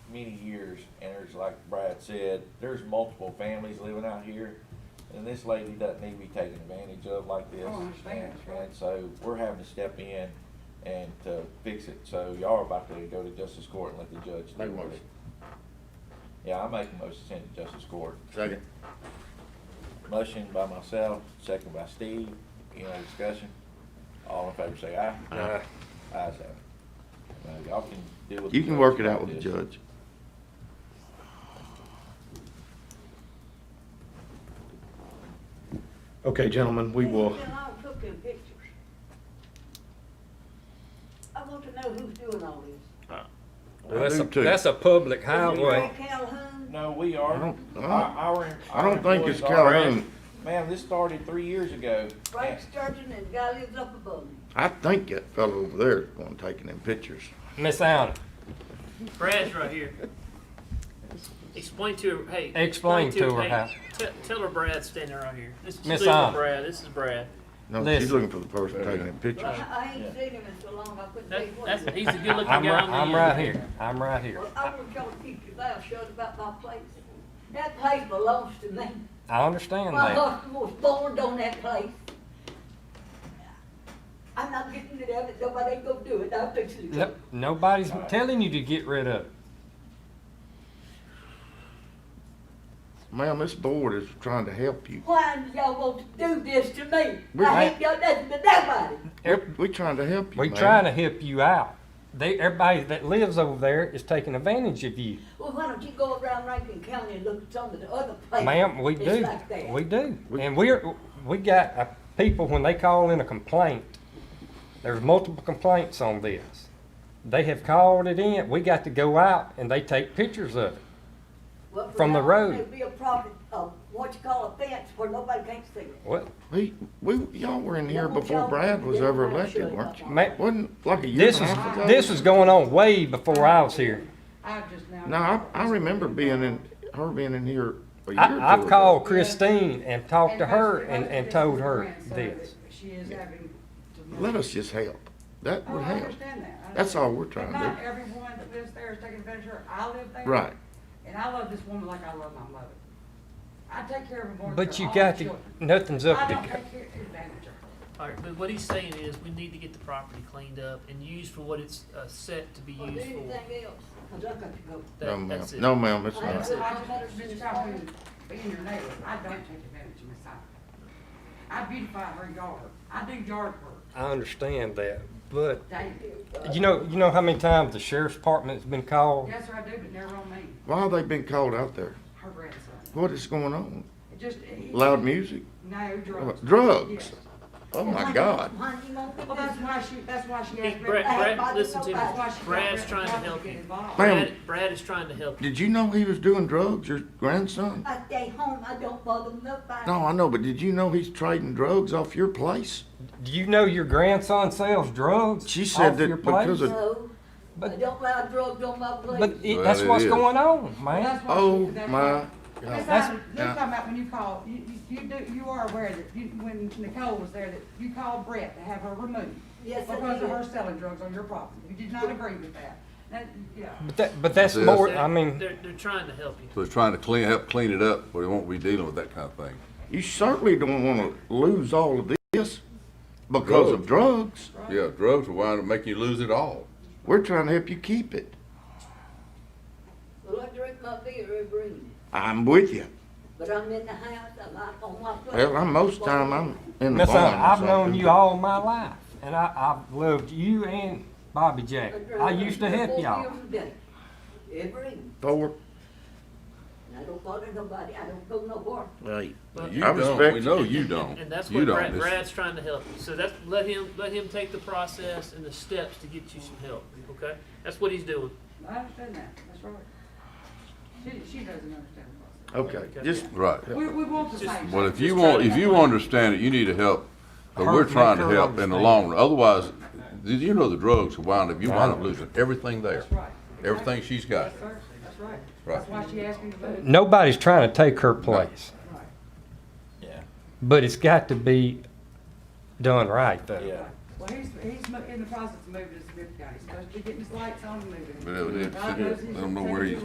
many years, and there's, like Brad said, there's multiple families living out here, and this lady doesn't need to be taken advantage of like this. Oh, I understand, And- that's right. And so, we're having to step in and to fix it, so y'all are about to go to justice court and let the judge Make a deal with it. motion. Yeah, I make a motion to send it to justice court. Second. Motion by myself, second by Steve, any other discussion? All in favor say aye. Aye. Ayes have it. Now, y'all can deal with. You the can judge work it out about with the this. judge. Okay, gentlemen, we will, There's been a lot of cooking pictures. I want to know who's doing all this. I That's a, do too. that's a public Ah, highway. Ray Calhoun, No, we are. I don't- I Our- don't- our- I our don't think it's employees are. Calhoun. Ma'am, this started three years ago. Frank Sturgeon, and the guy lives up above me. I think that fellow over there is going to taking them pictures. Miss Allen, Brad's right here. Explain to her, hey. Explain to her hey, how- te- Tell her Brad's standing right here. This is Miss Steve and Allen. Brad, this is Brad. No, she's Listen. looking for the person taking them But pictures. I, I ain't seen him in so long, I couldn't tell That, you what. that's, he he's a good looking guy. I'm right, on the I'm end. right here, I'm right here. was. Well, I want y'all to keep your mouth shut about my place. That place belongs to me. I understand My that. husband was born on that place. I'm not getting rid of it, nobody ain't gonna do it, I'll fix it. Yep, nobody's telling you to get rid of it. Ma'am, this board is trying to help you. Why do y'all want to do this to me? We- I ain't got nothing but nobody. Every- We're trying to help you, We ma'am. trying to help you out. They, everybody that lives over there is taking advantage of you. Well, why don't you go around Rankin County and look at some of the other places? Ma'am, we that's do, like that? we do. We- And we're, we got uh, people, when they call in a complaint, there's multiple complaints on this. They have called it in, we got to go out and they take pictures of it. Well, for from the now, road. There'd be a problem, uh, what you call a fence where nobody can't see it. Well, We, we, y'all were in here before Brad was ever elected, weren't you? Ma- Wasn't like a year This and a was, half ago? this was going on way before I was here. I've just now. No, I, I remember being in, her being in here a year or two I, I've ago. called Christine and talked to And her most- and, most and of told is her grants, so this. that She is having. to- Let us just help. That Oh, would I help. understand that. I That's understand. all we're trying But to do. not everyone that lives there is taking advantage of her. I live there. Right. And I love this woman like I love my mother. I take care of her more than But you all got the to, children. nothing's up I to don't go. take care- advantage of her. All right, but what he's saying is we need to get the property cleaned up and used for what it's, uh, set to be Or do used anything for. else, 'cause I got to go. No, That, ma'am. that's it. No, ma'am, it's I not. just- I just, Mr. Calhoun, being your neighbor, I don't take advantage of Miss Allen. I beautify her yard. I do yard work I understand that, but uh, daily. you know, you know how many times the sheriff's department's been called? Yes, sir, I do, but never on me, Why have they been called out there? her grandson. What is going on? It Just. he- Loud music? No, drugs. Drugs? Yes. Oh my God. Why you won't do Well, that's this? why she, that's why she Hey, asked. Brad, Brad- Brad, listen to me. That's why she. got Brad's Brad trying to Powell help get you. involved. Ma'am. Brad, Brad is trying to help you. Did you know he was doing drugs, your grandson? I stay home, I don't bother nobody. No, I know, but did you know he's trading drugs off your place? Do you know your grandson sells drugs? She said off that your place? because of- No, I But, don't allow drugs on my but plate. it- Well, that's it what's is. going on, Well, man. that's why she- Oh that's my why- Miss God. That's- Allen, you yeah. talking about when you call, you, you- you do, you are aware that you, when Nicole was there, that you called Brett to have her removed. Yes, I Because of her did. selling drugs on your property. You did not agree with that. That, yeah. But that, but that's That's it. more, They're- I mean, They're, they're trying to help you. So it's trying to clean, help clean it up, but it won't be dealing with that kind of thing. You certainly don't want to lose all of this because of drugs. Yeah, drugs will wind up making you lose it all. We're trying to help you keep it. Well, I drink my beer every evening, I'm with you. but I'm in the house, I'm out on my plate. Well, I'm most time I'm in the Miss barn. Allen, or I've known something. you all my life, and I, I've loved you and Bobby Jack. I used to help y'all. Every evening, Four. and I don't bother nobody, I don't go nowhere. Right. But- You I don't, respect we you. know you don't. And that's You what don't. Brad, This- Brad's trying to help you. So that's, let him, let him take the process and the steps to get you some help, okay? That's what he's doing. I understand that, that's right. She, she doesn't understand the Okay, just, Right. process. We, we want the Just- same. Oh, Well, thing. if you Just try want, to- if you understand it, you need to help, but Her- we're make trying to her help in the understand. long run. Otherwise, did you know the drugs will wind up, you wind up losing everything there. That's right. Everything she's got. Yes, sir, that's right. Right. That's why she asked me to vote. Nobody's trying to take her place, Right. Yeah, but it's got to be done right, though. yeah. Well, he's, he's mo- in the process of moving to Smith County. He's supposed to be getting his lights on and moving. But it- it- God knows he's I don't know where gonna he's